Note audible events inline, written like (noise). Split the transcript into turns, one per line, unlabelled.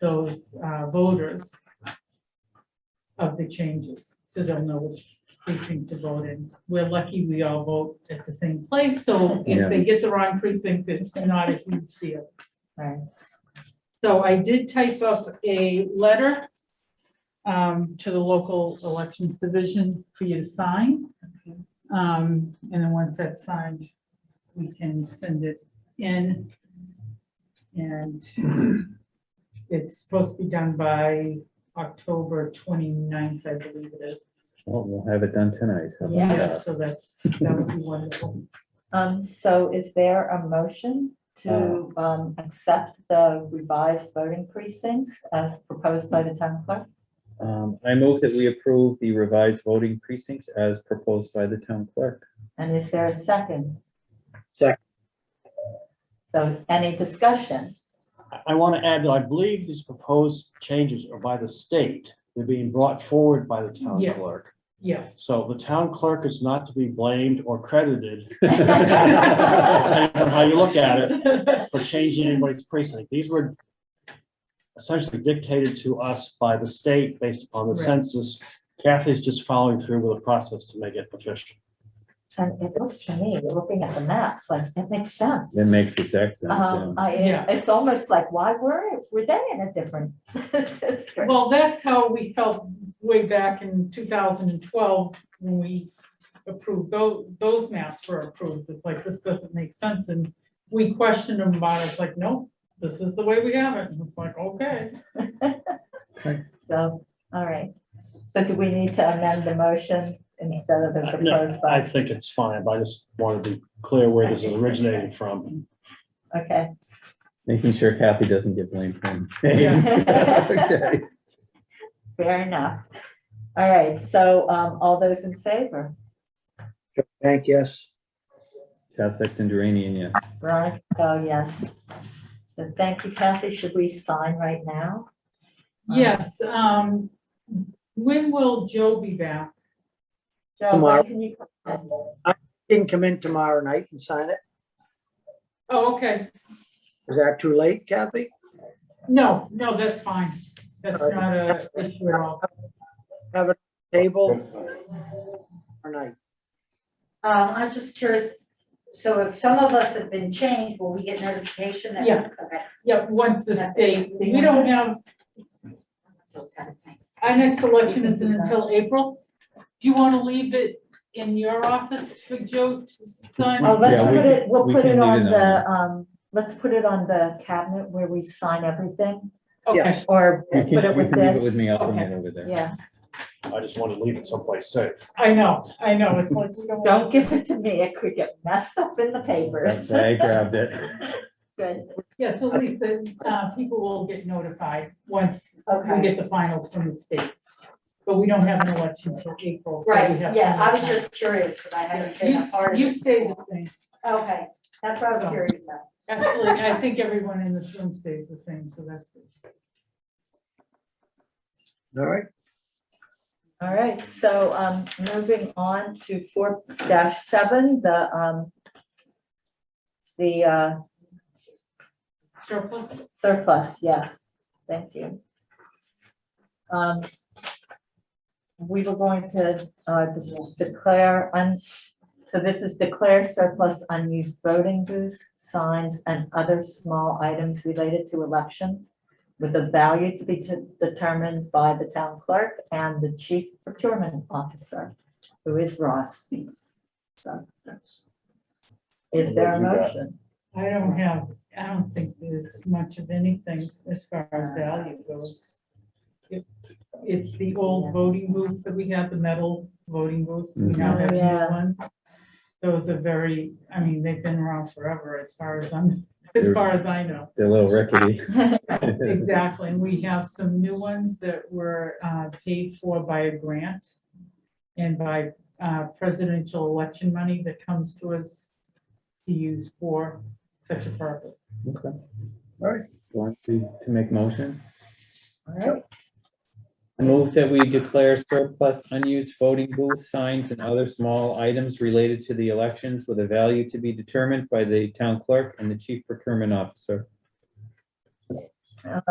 those uh, voters of the changes, so they'll know which precinct to vote in. We're lucky we all vote at the same place, so if they get the wrong precinct, it's not a huge deal. Right. So I did type up a letter um, to the local elections division for you to sign. Um, and then once that's signed, we can send it in. And it's supposed to be done by October 29th, I believe it is.
Well, we'll have it done tonight. How about
Yeah.
that?
So that's, that would be wonderful.
Um, so is there a motion to,
Uh.
um, accept the revised voting precincts as proposed by the town clerk?
Um, I move that we approve the revised voting precincts as proposed by the town
(laughs)
clerk.
And is there a second?
Second.
So any discussion?
I- I want to add that I believe these proposed changes are by the state. They're being brought forward by the town
Yes.
clerk.
Yes.
So the town clerk is not to be blamed or
(laughs)
credited,
Right.
depending on how you look at it, for changing anybody's precinct. These were essentially dictated to us by the state based upon the
Right.
census. Kathy's just following through with the process to make it efficient.
And it looks to me, you're looking at the maps, like, it makes sense.
That makes exact sense. yeah.
Um, I,
Yeah.
it's almost like, why were, were they in a different (laughs) district?
(laughs) Well, that's how we felt way back in two thousand and twelve when we approved, those, those maps were approved. It's like, this doesn't make sense. And we questioned them about it. It's like, no, this is the way we have it. And it's like, okay.
So, all right. So do we need to amend the motion instead
Uh,
of the proposed
I
by?
think it's fine, but I just want to be clear where this is originated from.
Okay.
Making sure Kathy doesn't get blamed for
(laughs) Yeah.
it.
Fair enough. All right, so um, all those in favor?
Thank yes.
Chad Sexton Duranian, yes.
Veronica, oh, yes. So thank you, Kathy. Should we sign right now?
Yes, um, when will Joe be back?
Joe,
Tomorrow.
when can you?
Didn't come in tomorrow night and sign it.
Oh, okay.
Is that too late, Kathy?
No, no, that's fine. That's not a issue at all.
Have a table? Or night?
Um, I'm just curious, so if some of us have been changed, will we get notification? that-
Yeah.
Okay.
Yeah, once the state, we don't have,
So, kind of thing.
our next election isn't until April. Do you want to leave it in your office for Joe to sign?
Oh, let's
Yeah, we
put
can-
it, we'll
we
put
can
it
leave
on
it on.
the, um, let's put it on the cabinet where we sign everything
Okay,
Yes.
or
You
put
can, you
it
can
with
leave it with
this.
me. I'll bring
Okay.
it over there.
Yeah,
I just want to leave it someplace safe.
I know, I know, it's like, we
don't give it to me. It could get messed up in the
That's
papers.
why I grabbed it.
Good.
yeah, so at least the, uh, people will get notified once we
Okay.
get the finals from the state. But we don't have an election until April. so we
Right,
have
yeah, I was
plenty of
just curious, because I haven't been a
time.
part of
You, you
this
stay the
before.
same.
Okay, that's what I was curious about.
Actually, I think everyone in this room stays the same, so that's good.
All right.
All right, so um, moving on to four dash seven, the um, the uh,
Surplus?
surplus, yes, thank you. Um, We were going to uh, dis- declare, un- so this is declare surplus unused voting booths, signs, and other small items related to elections with a value to be de- determined by the town clerk and the chief procurement officer, who is Ross. So, Is there a motion?
I don't have, I don't think there's much of anything as far as value goes. It- It's the old voting booths that we had, the metal voting booths, we now have new
Yeah.
ones. Those are very, I mean, they've been around forever as far as I'm, as far as I know.
They're a little
(laughs)
rickety.
Exactly, and we have some new ones that were uh, paid for by a grant and by uh, presidential election money that comes to us to use for such a purpose.
(laughs) Okay.
All right.
Want to, to make motion?
All right,
I Move that we declare surplus unused voting booths, signs, and other small items related to the elections with a value to be
Um,
determined by the town clerk and the chief procurement officer.